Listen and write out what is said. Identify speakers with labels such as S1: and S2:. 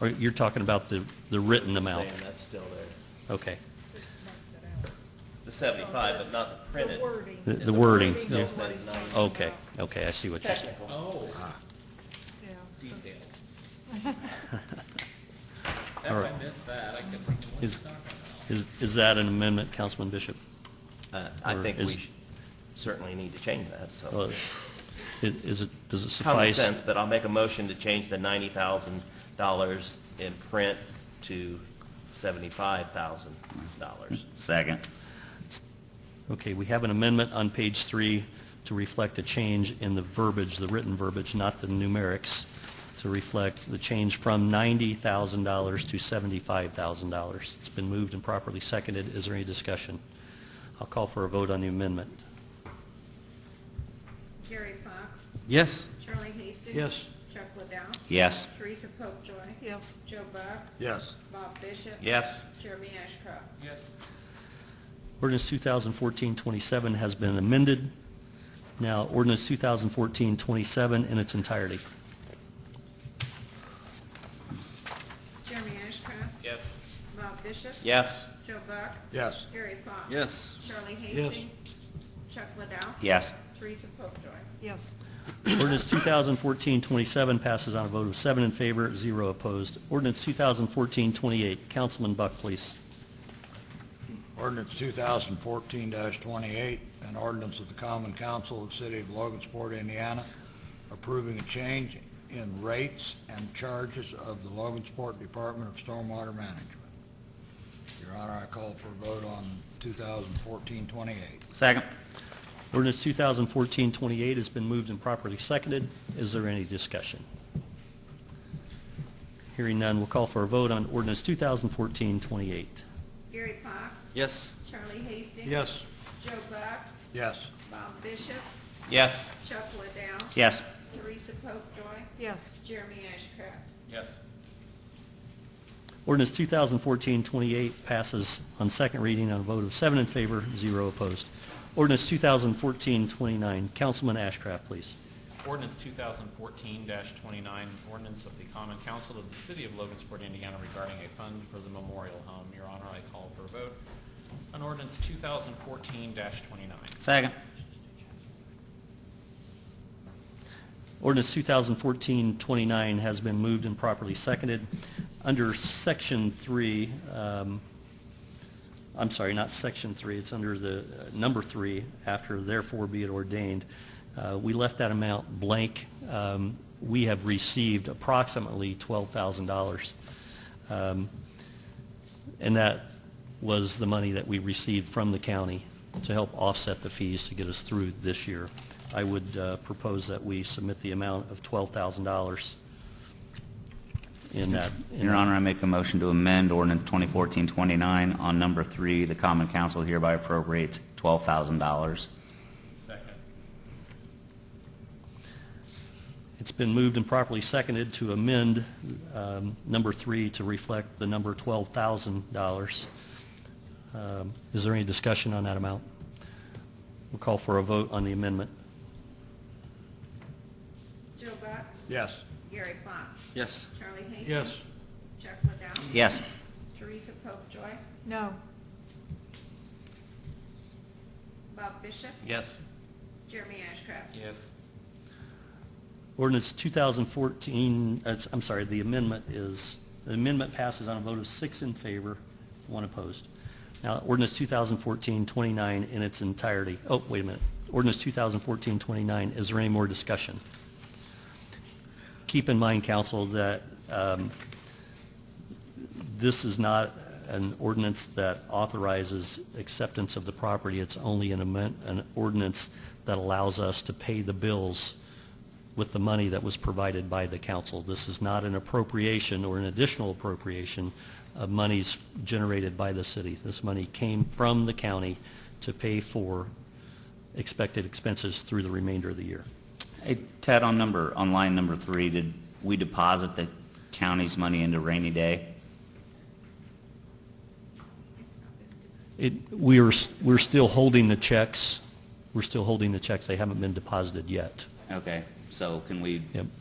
S1: Or you're talking about the, the written amount?
S2: Saying that's still there.
S1: Okay.
S2: The 75, but not the printed.
S3: The wording.
S1: The-
S2: And
S1: the wording,
S2: still
S1: yeah. Oh.
S2: says 90.
S1: Okay, okay, I see what you're saying.
S4: Oh,
S2: Technical.
S3: Yeah.
S4: details. That's,
S1: All
S4: I
S1: right.
S4: missed that, I kept thinking, what's
S1: Is,
S4: he talking about?
S1: is, is that an amendment, Councilman Bishop?
S2: Uh, I
S1: Or
S2: think
S1: is-
S2: we sh- certainly need to change that,
S1: Uh,
S2: so.
S1: i- Is it, does it
S2: Common
S1: suffice?
S2: sense, but I'll make a motion to change the $90,000 in print to $75,000.
S5: Second.
S1: Okay, we have an amendment on page three to reflect a change in the verbiage, the written verbiage, not the numerics, to reflect the change from $90,000 to $75,000. It's been moved and properly seconded. Is there any discussion? I'll call for a vote on the amendment.
S6: Gary Fox,
S1: Yes.
S6: Charlie Hastings.
S1: Yes.
S6: Chuck Liddell.
S5: Yes.
S6: Teresa Popejoy.
S3: Yes.
S6: Joe Buck.
S2: Yes.
S6: Bob Bishop.
S2: Yes.
S6: Jeremy Ashcraft.
S4: Yes,
S1: Ordinance 2014-27 has been amended. Now, ordinance 2014-27 in its entirety.
S6: Jeremy Ashcraft.
S4: yes,
S6: Bob Bishop.
S2: Yes.
S6: Joe Buck.
S2: Yes.
S6: Gary Fox.
S2: Yes.
S6: Charlie Hastings. Chuck Liddell.
S5: Yes.
S6: Teresa Popejoy.
S3: Yes.
S1: Ordinance 2014-27 passes on a vote of seven in favor, zero opposed. Ordinance 2014-28, Councilman Buck, please.
S7: Ordinance 2014-28, an ordinance of the Common Council of the City of Logansport, Indiana, approving a change in rates and charges of the Logansport Department of Stormwater Management. Your Honor, I call for a vote on 2014-28.
S5: Second.
S1: Ordinance 2014-28 has been moved and properly seconded. Is there any discussion? Hearing none, we'll call for a vote on ordinance 2014-28.
S6: Gary Fox.
S2: Yes.
S6: Charlie Hastings.
S7: Yes.
S6: Joe Buck.
S7: Yes.
S6: Bob Bishop.
S2: Yes.
S6: Chuck Liddell.
S5: Yes.
S6: Teresa Popejoy.
S3: Yes.
S6: Jeremy Ashcraft.
S4: yes,
S1: Ordinance 2014-28 passes on second reading on a vote of seven in favor, zero opposed. Ordinance 2014-29, Councilman Ashcraft, please.
S8: Ordinance 2014-29, ordinance of the Common Council of the City of Logansport, Indiana regarding a fund for the memorial home. Your Honor, I call for a vote on ordinance 2014-29.
S5: Second.
S1: Ordinance 2014-29 has been moved and properly seconded. Under Section 3, um, I'm sorry, not Section 3, it's under the uh, number 3, after therefore be it ordained. Uh, We left that amount blank. Um, We have received approximately $12,000. Um, And that was the money that we received from the county to help offset the fees to get us through this year. I would uh, propose that we submit the amount of $12,000 in that. in
S5: Your
S1: that-
S5: Honor, I make a motion to amend ordinance 2014-29 on number three. The common council hereby appropriates $12,000.
S4: second,
S1: It's been moved and properly seconded to amend um, number three to reflect the number $12,000. Um, Is there any discussion on that amount? We'll call for a vote on the amendment.
S6: Joe Buck.
S7: Yes.
S6: Gary Fox.
S2: Yes.
S6: Charlie Hastings.
S7: Yes.
S6: Chuck Liddell.
S5: Yes.
S6: Teresa Popejoy.
S3: No.
S6: Bob Bishop.
S2: Yes.
S6: Jeremy Ashcraft.
S4: yes,
S1: Ordinance 2014, uh, I'm sorry, the amendment is, the amendment passes on a vote of six in favor, one opposed. Now, ordinance 2014-29 in its entirety, oh, wait a minute, ordinance 2014-29, is there any more discussion? Keep in mind, council, that um, this is not an ordinance that authorizes acceptance of the property, it's only an amend- an ordinance that allows us to pay the bills with the money that was provided by the council. This is not an appropriation or an additional appropriation of monies generated by the city. This money came from the county to pay for expected expenses through the remainder of the year.
S5: Hey, Ted, on number, on line number three, did we deposit the county's money into rainy day?
S6: It's not been de-
S1: It, we are, s- we're still holding the checks, we're still holding the checks, they haven't been deposited yet.
S5: Okay, so can we
S1: Yep.